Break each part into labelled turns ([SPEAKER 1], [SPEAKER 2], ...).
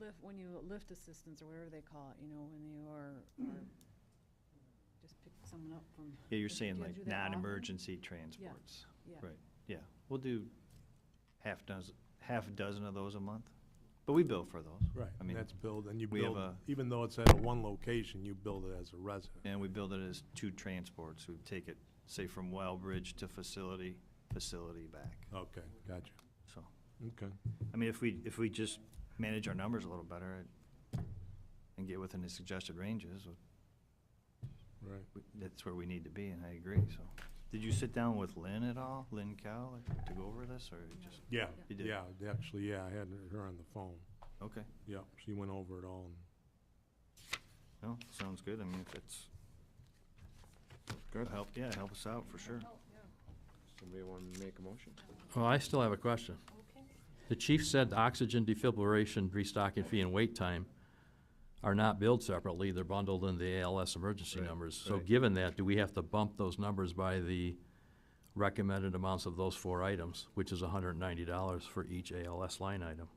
[SPEAKER 1] lift, when you lift assistance or whatever they call it, you know, when you are, are, just pick someone up from.
[SPEAKER 2] Yeah, you're
[SPEAKER 1] Do
[SPEAKER 2] saying
[SPEAKER 1] you
[SPEAKER 2] like
[SPEAKER 1] do that often?
[SPEAKER 2] non-emergency transports.
[SPEAKER 1] Yeah.
[SPEAKER 2] Right, yeah. We'll do half dozen, half a dozen of those a month, but we bill for those.
[SPEAKER 3] Right,
[SPEAKER 2] I
[SPEAKER 3] and
[SPEAKER 2] mean,
[SPEAKER 3] that's billed, and you
[SPEAKER 2] we have
[SPEAKER 3] build,
[SPEAKER 2] a-
[SPEAKER 3] even though it's at a one location, you build it as a resident.
[SPEAKER 2] and we build it as two transports. We take it, say, from Wellbridge to facility, facility back,
[SPEAKER 3] Okay, gotcha.
[SPEAKER 2] so.
[SPEAKER 3] Okay.
[SPEAKER 2] I mean, if we, if we just manage our numbers a little better I- and get within the suggested ranges,
[SPEAKER 3] Right.
[SPEAKER 2] we- that's where we need to be, and I agree, so. Did you sit down with Lynn at all, Lynn Cow, to go over this, or you just,
[SPEAKER 3] Yeah,
[SPEAKER 2] You did.
[SPEAKER 3] yeah, actually, yeah, I had her on the phone.
[SPEAKER 2] okay?
[SPEAKER 3] Yeah, she went over it all. and-
[SPEAKER 2] No, sounds good, I mean, if it's, good, help, yeah, help us out, for sure.
[SPEAKER 4] Somebody want to make a motion?
[SPEAKER 5] Well, I still have a question. The chief said oxygen defibrillation, restocking fee, and wait time are not billed separately, they're bundled in the ALS emergency
[SPEAKER 2] Right,
[SPEAKER 5] numbers. So
[SPEAKER 2] right.
[SPEAKER 5] given that, do we have to bump those numbers by the recommended amounts of those four items, which is hundred and ninety dollars for each ALS line item?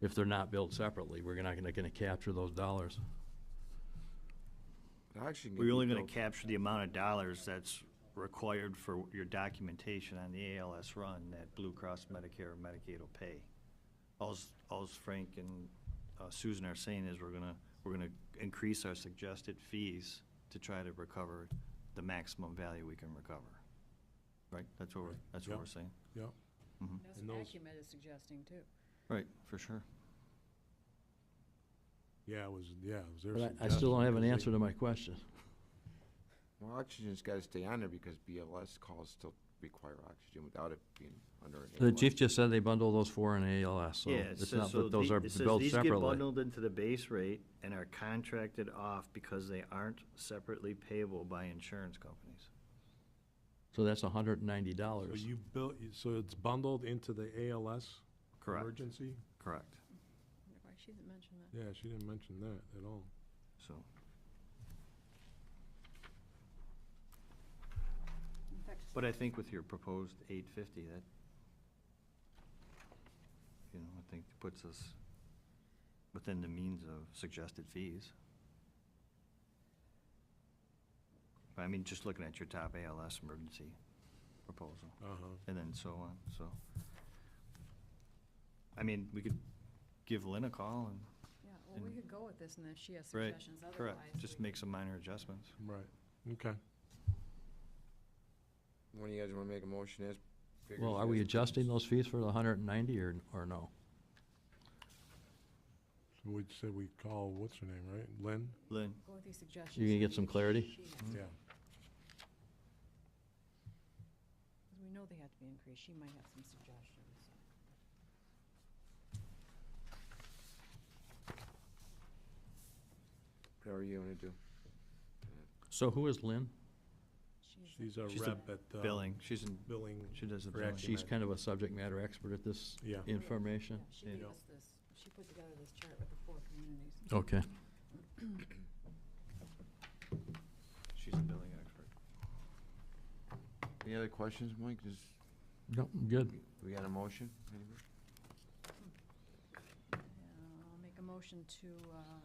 [SPEAKER 5] If they're not billed separately, we're not gonna, gonna capture those dollars.
[SPEAKER 2] We're only gonna capture the amount of dollars that's required for your documentation on the ALS run that Blue Cross Medicare and Medicaid will pay. Alls, alls Frank and uh, Susan are saying is we're gonna, we're gonna increase our suggested fees to try to recover the maximum value we can recover. Right? That's what we're, that's what
[SPEAKER 3] Yep.
[SPEAKER 2] we're saying.
[SPEAKER 3] Yeah,
[SPEAKER 1] That's
[SPEAKER 3] And
[SPEAKER 1] what
[SPEAKER 3] those-
[SPEAKER 1] Acumen is suggesting too.
[SPEAKER 2] Right, for sure.
[SPEAKER 3] yeah, it was, yeah, it was their
[SPEAKER 5] But
[SPEAKER 3] suggestion.
[SPEAKER 5] I, I still don't have an
[SPEAKER 3] because they-
[SPEAKER 5] answer to my question.
[SPEAKER 4] Well, oxygen's got to stay on there because BLS calls still require oxygen without it being under an
[SPEAKER 5] The
[SPEAKER 4] ALS.
[SPEAKER 5] chief just said they bundle those four in ALS, so
[SPEAKER 2] Yeah, it
[SPEAKER 5] it's
[SPEAKER 2] says-
[SPEAKER 5] not
[SPEAKER 2] so
[SPEAKER 5] that those
[SPEAKER 2] the-
[SPEAKER 5] are
[SPEAKER 2] it says
[SPEAKER 5] billed
[SPEAKER 2] These get
[SPEAKER 5] separately.
[SPEAKER 2] bundled into the base rate and are contracted off because they aren't separately payable by insurance companies.
[SPEAKER 5] So that's hundred and ninety
[SPEAKER 3] So
[SPEAKER 5] dollars.
[SPEAKER 3] you built, so it's bundled into the ALS?
[SPEAKER 2] Correct.
[SPEAKER 3] Emergency?
[SPEAKER 2] Correct.
[SPEAKER 1] Wonder Why she didn't mention that.
[SPEAKER 3] Yeah, she didn't mention that at all.
[SPEAKER 2] So,
[SPEAKER 1] In fact,
[SPEAKER 2] but I think with your proposed eight fifty, that, you know, I think puts us within the means of suggested fees. I mean, just looking at your top ALS emergency proposal.
[SPEAKER 3] Uh-huh.
[SPEAKER 2] and then so on, so. I mean, we could give Lynn a call and.
[SPEAKER 1] Yeah, well, we
[SPEAKER 2] And-
[SPEAKER 1] could go with this and if she has suggestions otherwise.
[SPEAKER 2] Correct, just
[SPEAKER 1] we-
[SPEAKER 2] make some minor adjustments.
[SPEAKER 3] Right, okay.
[SPEAKER 4] One of you guys want to make a motion as? figures
[SPEAKER 5] Well, are we
[SPEAKER 4] as-
[SPEAKER 5] adjusting those fees for the hundred and ninety or, or no?
[SPEAKER 3] So we said we call, what's her name, right? Lynn?
[SPEAKER 2] Lynn,
[SPEAKER 1] Go with these suggestions.
[SPEAKER 5] You gonna get some clarity?
[SPEAKER 1] She has-
[SPEAKER 3] Yeah.
[SPEAKER 1] Because we know they have to be increased. She might have some suggestions.
[SPEAKER 4] Whatever you want to do.
[SPEAKER 5] So who is Lynn?
[SPEAKER 3] She's a
[SPEAKER 2] She's the
[SPEAKER 3] rep at. uh,
[SPEAKER 2] billing, she's in,
[SPEAKER 3] Billing.
[SPEAKER 2] she does the
[SPEAKER 3] for
[SPEAKER 2] billing.
[SPEAKER 3] action
[SPEAKER 5] She's kind of a subject matter expert at this
[SPEAKER 3] Yeah.
[SPEAKER 5] information.
[SPEAKER 1] Yeah, She gave
[SPEAKER 3] Yeah.
[SPEAKER 1] us this, she put together this chart with the four communities.
[SPEAKER 5] Okay.
[SPEAKER 2] She's a billing expert.
[SPEAKER 4] Any other questions, Mike? Does,
[SPEAKER 5] No, I'm good.
[SPEAKER 4] we got a motion? Anybody?
[SPEAKER 1] Uh, I'll make a motion to uh,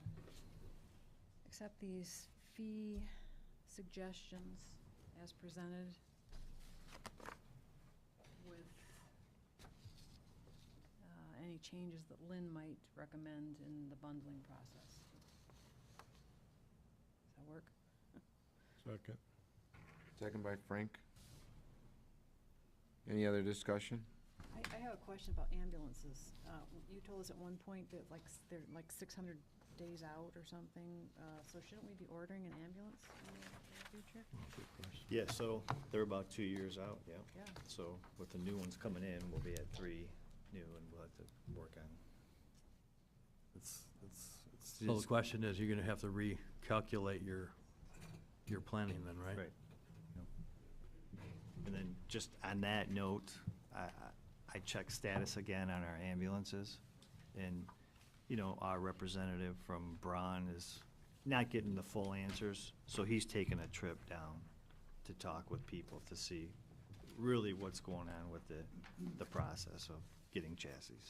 [SPEAKER 1] accept these fee suggestions as presented with uh, any changes that Lynn might recommend in the bundling process. Does that work?
[SPEAKER 3] Second.
[SPEAKER 4] Second by Frank. Any other discussion?
[SPEAKER 1] I, I have a question about ambulances. Uh, You told us at one point that like, s- they're like six hundred days out or something, uh, so shouldn't we be ordering an ambulance in the- in the future?
[SPEAKER 2] Yeah, so they're about two years out, yeah.
[SPEAKER 1] Yeah.
[SPEAKER 2] So with the new ones coming in, we'll be at three new and we'll have to work on. It's, it's, it's.
[SPEAKER 5] So the question is, you're gonna have to recalculate your, your planning then, right?
[SPEAKER 2] Right. And then, just on that note, I, I- I checked status again on our ambulances, and, you know, our representative from Braun is not getting the full answers, so he's taking a trip down to talk with people to see really what's going on with the, the process of getting chassis.